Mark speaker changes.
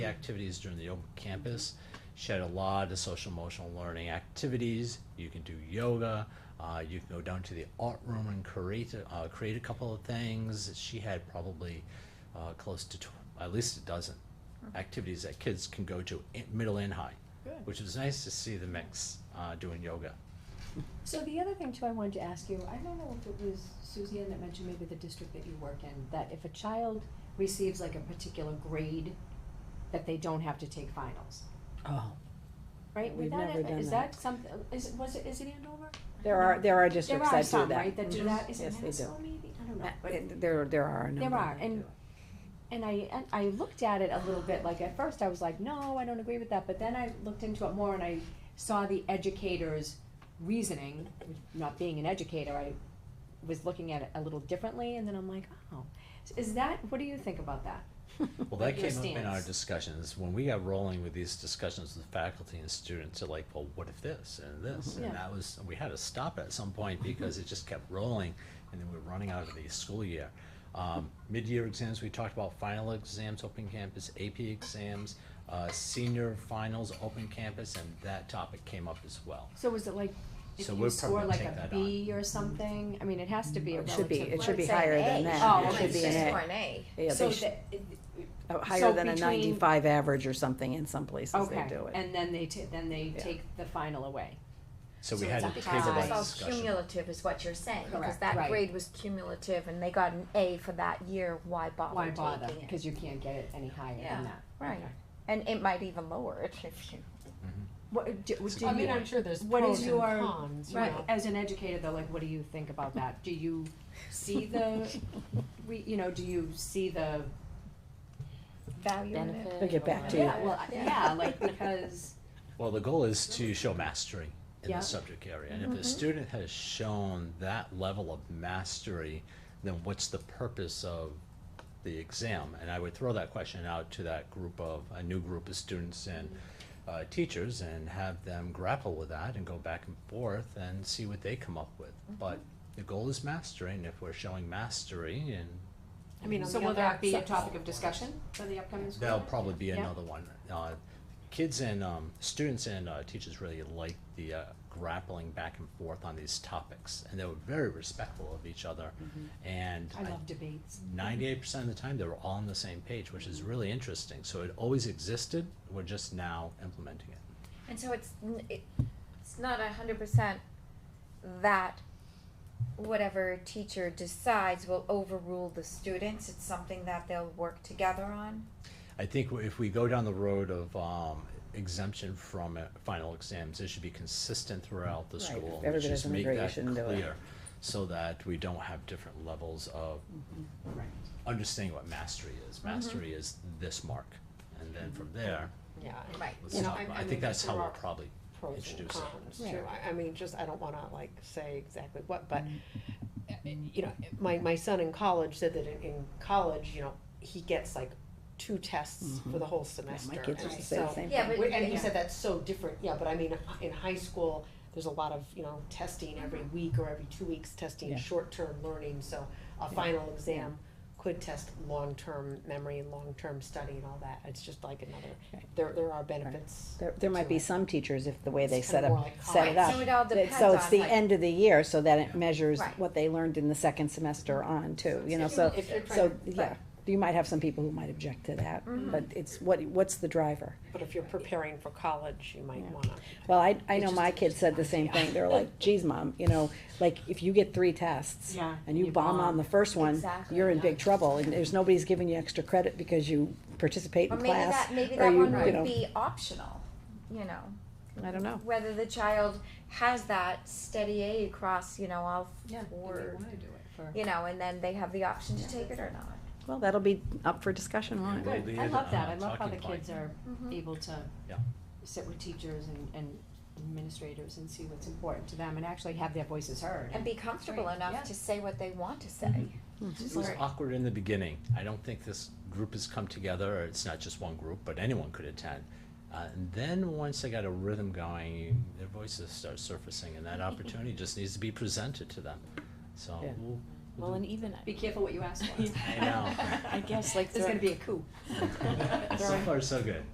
Speaker 1: activities during the open campus. She had a lot of social emotional learning activities. You can do yoga. Uh, you can go down to the art room and create a- uh, create a couple of things. She had probably uh, close to tw- at least a dozen activities that kids can go to in, middle and high,
Speaker 2: Good.
Speaker 1: which was nice to see the mix uh, doing yoga.
Speaker 3: So the other thing too I wanted to ask you, I don't know if it was Suzanne that mentioned maybe the district that you work in, that if a child receives like a particular grade, that they don't have to take finals,
Speaker 4: Oh,
Speaker 3: right?
Speaker 4: We've
Speaker 3: Would that-
Speaker 4: never done
Speaker 3: Is
Speaker 4: that.
Speaker 3: that something, is, it was it, is it Andover?
Speaker 4: there are, there are
Speaker 3: There
Speaker 4: districts
Speaker 3: are
Speaker 4: that do
Speaker 3: some,
Speaker 4: that.
Speaker 3: right, that do
Speaker 4: Mhm.
Speaker 3: that, is it
Speaker 4: Yes, they do.
Speaker 3: Maxwell maybe? I don't know,
Speaker 4: Uh,
Speaker 3: but-
Speaker 4: it- There, there are a number.
Speaker 3: There are,
Speaker 4: that
Speaker 3: and,
Speaker 4: do.
Speaker 3: and I, and I looked at it a little bit, like at first I was like, no, I don't agree with that, but then I looked into it more and I saw the educator's reasoning, not being an educator, I was looking at it a little differently, and then I'm like, oh, is that, what do you think about that?
Speaker 1: Well, that
Speaker 3: Like your
Speaker 1: came up in our
Speaker 3: stance.
Speaker 1: discussions, when we got rolling with these discussions with faculty and students, they're like, well, what if this and this?
Speaker 3: Mm-hmm. Yeah. Mm-hmm.
Speaker 1: And that was, we had to stop at some point because it just kept rolling and then we were running out of the school year. Um, mid-year exams, we talked about final exams, open campus, AP exams, uh, senior finals, open campus, and that topic came up as well.
Speaker 3: So was it like, if
Speaker 1: So
Speaker 3: you
Speaker 1: we'll
Speaker 3: score
Speaker 1: probably
Speaker 3: like
Speaker 1: take
Speaker 3: a
Speaker 1: that on.
Speaker 3: B or something, I mean, it has to be a
Speaker 4: It should be,
Speaker 3: relative.
Speaker 4: it should be
Speaker 5: Well, it's
Speaker 4: higher
Speaker 5: an
Speaker 4: than
Speaker 5: A.
Speaker 4: that.
Speaker 3: Oh,
Speaker 4: It should
Speaker 5: It's
Speaker 4: be
Speaker 5: just
Speaker 4: an
Speaker 5: for
Speaker 4: A.
Speaker 5: an A.
Speaker 4: Yeah,
Speaker 3: So
Speaker 4: they should,
Speaker 3: that-
Speaker 4: uh,
Speaker 3: so
Speaker 4: higher than a
Speaker 3: between-
Speaker 4: ninety-five average or something in some places they
Speaker 3: okay,
Speaker 4: do it.
Speaker 3: and then they ta- then they
Speaker 4: Yeah.
Speaker 3: take the final away.
Speaker 1: So we
Speaker 3: So
Speaker 1: had
Speaker 3: it's
Speaker 1: to
Speaker 3: up to
Speaker 1: table
Speaker 3: us.
Speaker 1: that
Speaker 5: It's all
Speaker 1: discussion.
Speaker 5: cumulative is what you're saying, because
Speaker 3: Correct,
Speaker 5: that
Speaker 3: right.
Speaker 5: grade was cumulative and they got an A for that year, why
Speaker 3: Why
Speaker 5: bother
Speaker 3: bother?
Speaker 5: taking it?
Speaker 3: Because you can't get it any higher
Speaker 5: Yeah.
Speaker 3: than that.
Speaker 5: Right, and it might even lower it if you,
Speaker 3: What, do,
Speaker 1: It's a
Speaker 3: do
Speaker 1: good
Speaker 3: you,
Speaker 1: point.
Speaker 6: sure there's
Speaker 3: What is
Speaker 6: pros and
Speaker 3: your-
Speaker 6: cons, you
Speaker 3: right,
Speaker 6: know.
Speaker 3: as an educator though, like, what do you think about that? Do you see the, we, you know, do you see the,
Speaker 5: value in it.
Speaker 4: We'll get back to you.
Speaker 3: yeah, well, I- yeah, like, because,
Speaker 1: Well, the goal is to show mastery in
Speaker 3: Yeah.
Speaker 1: the subject area, and if a student has shown that level of mastery, then what's the purpose of the exam? And I would throw that question out to that group of, a new group of students and uh, teachers and have them grapple with that and go back and forth and see what they come up with. But the goal is mastery, and if we're showing mastery, and
Speaker 3: I mean,
Speaker 6: So
Speaker 3: so
Speaker 6: will
Speaker 3: will that
Speaker 6: that
Speaker 3: be a
Speaker 6: set-
Speaker 3: topic of discussion for the upcoming school?
Speaker 1: That'll
Speaker 3: year?
Speaker 1: probably be
Speaker 3: Yeah.
Speaker 1: another one. Uh, Kids and, um, students and uh, teachers really like the uh, grappling back and forth on these topics, and they were very respectful of each other. And
Speaker 3: Mm-hmm. I love debates.
Speaker 1: ninety-eight percent of the time, they were all on the same page, which is really interesting. So it always existed, we're just now implementing it.
Speaker 5: And so it's, n- it- it's not a hundred percent that whatever teacher decides will overrule the students, it's something that they'll work together on.
Speaker 1: I think if we go down the road of um, exemption from uh, final exams, it should be consistent throughout the
Speaker 4: Right. If
Speaker 1: school. and
Speaker 4: everybody
Speaker 1: just
Speaker 4: doesn't
Speaker 1: make
Speaker 4: agree, you
Speaker 1: that
Speaker 4: shouldn't do it.
Speaker 1: clear So that we don't have different levels of
Speaker 4: Mm-hmm.
Speaker 3: Right.
Speaker 1: understanding what mastery is. Mastery is this mark, and then from there,
Speaker 6: Yeah, and
Speaker 5: Right.
Speaker 1: let's
Speaker 6: You know,
Speaker 1: talk
Speaker 6: I-
Speaker 1: about.
Speaker 6: I
Speaker 1: I
Speaker 6: mean,
Speaker 1: think that's how
Speaker 6: there
Speaker 1: we'll
Speaker 6: are
Speaker 1: probably.
Speaker 6: pros and
Speaker 1: Introduce it.
Speaker 6: cons too. I, I mean, just, I don't wanna like say exactly what, but,
Speaker 4: Mm-hmm.
Speaker 6: uh, you know, my, my son in college said that in, in college, you know, he gets like two tests for the whole
Speaker 4: Mm-hmm. Yeah,
Speaker 6: semester.
Speaker 4: My kids
Speaker 6: and
Speaker 4: used to say the
Speaker 6: so-
Speaker 4: same
Speaker 5: Yeah,
Speaker 4: thing.
Speaker 5: but-
Speaker 6: And he said that's so different, yeah, but I mean, in high school, there's a lot of, you know, testing every week or every two weeks,
Speaker 4: Mm-hmm. Yeah.
Speaker 6: testing short-term learning, so a final exam could test long-term memory and long-term study and all that, it's just like another,
Speaker 4: Right.
Speaker 6: there, there are benefits.
Speaker 4: There, there might be
Speaker 6: to it.
Speaker 4: some teachers, if the way they
Speaker 6: It's
Speaker 4: set
Speaker 6: kinda more
Speaker 4: up,
Speaker 6: like
Speaker 4: set it
Speaker 5: Right, So
Speaker 4: up.
Speaker 5: it all
Speaker 4: that-
Speaker 5: depends on
Speaker 4: So it's the
Speaker 5: like-
Speaker 4: end of the year, so that it measures
Speaker 5: Right.
Speaker 4: what they learned in the second semester on too, you know, so,
Speaker 6: If you're trying
Speaker 4: so,
Speaker 6: to-
Speaker 4: yeah. You might have some people who might object to that, but it's, what, what's the driver?
Speaker 6: But if you're preparing for college, you might
Speaker 4: Yeah.
Speaker 6: wanna.
Speaker 4: Well, I, I know
Speaker 6: just
Speaker 4: my
Speaker 6: a-
Speaker 4: kids said the same thing. They're like, geez, mom, you know, like if you get three tests
Speaker 3: Yeah,
Speaker 4: and you bomb on the first one,
Speaker 5: Exactly,
Speaker 4: you're in
Speaker 5: yeah.
Speaker 4: big trouble and there's nobody's giving you extra credit because you participate
Speaker 5: Or
Speaker 4: in
Speaker 5: maybe
Speaker 4: class.
Speaker 5: that, maybe
Speaker 4: or
Speaker 5: that
Speaker 4: you-
Speaker 5: one
Speaker 4: you know,
Speaker 5: would be optional, you know,
Speaker 4: I don't know.
Speaker 5: whether the child has that steady A across, you know, all
Speaker 3: Yeah, if they
Speaker 5: four,
Speaker 3: wanna do it for.
Speaker 5: you know, and then they have the option to take it or not.
Speaker 4: Well, that'll be up for discussion, won't it?
Speaker 1: Well,
Speaker 3: Good,
Speaker 1: the
Speaker 3: I
Speaker 1: other,
Speaker 3: love that,
Speaker 1: uh,
Speaker 3: I love how the
Speaker 1: talking point.
Speaker 3: kids are
Speaker 5: Mm-hmm.
Speaker 3: able to
Speaker 1: Yeah.
Speaker 3: sit with teachers and, and administrators and see what's important to them and actually have their voices heard.
Speaker 5: And be comfortable
Speaker 3: Right, yeah.
Speaker 5: enough to say what they want to say.
Speaker 4: Mm-hmm.
Speaker 1: It was
Speaker 5: Right.
Speaker 1: awkward in the beginning. I don't think this group has come together, or it's not just one group, but anyone could attend. Uh, and then once they got a rhythm going, you, their voices start surfacing, and that opportunity just needs to be presented to them. So
Speaker 4: Yeah.
Speaker 1: we'll,
Speaker 4: Well, and even,
Speaker 3: Be careful what you ask for.
Speaker 1: I know.
Speaker 4: I guess like
Speaker 3: There's
Speaker 4: throw-
Speaker 3: gonna be a coup.
Speaker 1: So far, so good.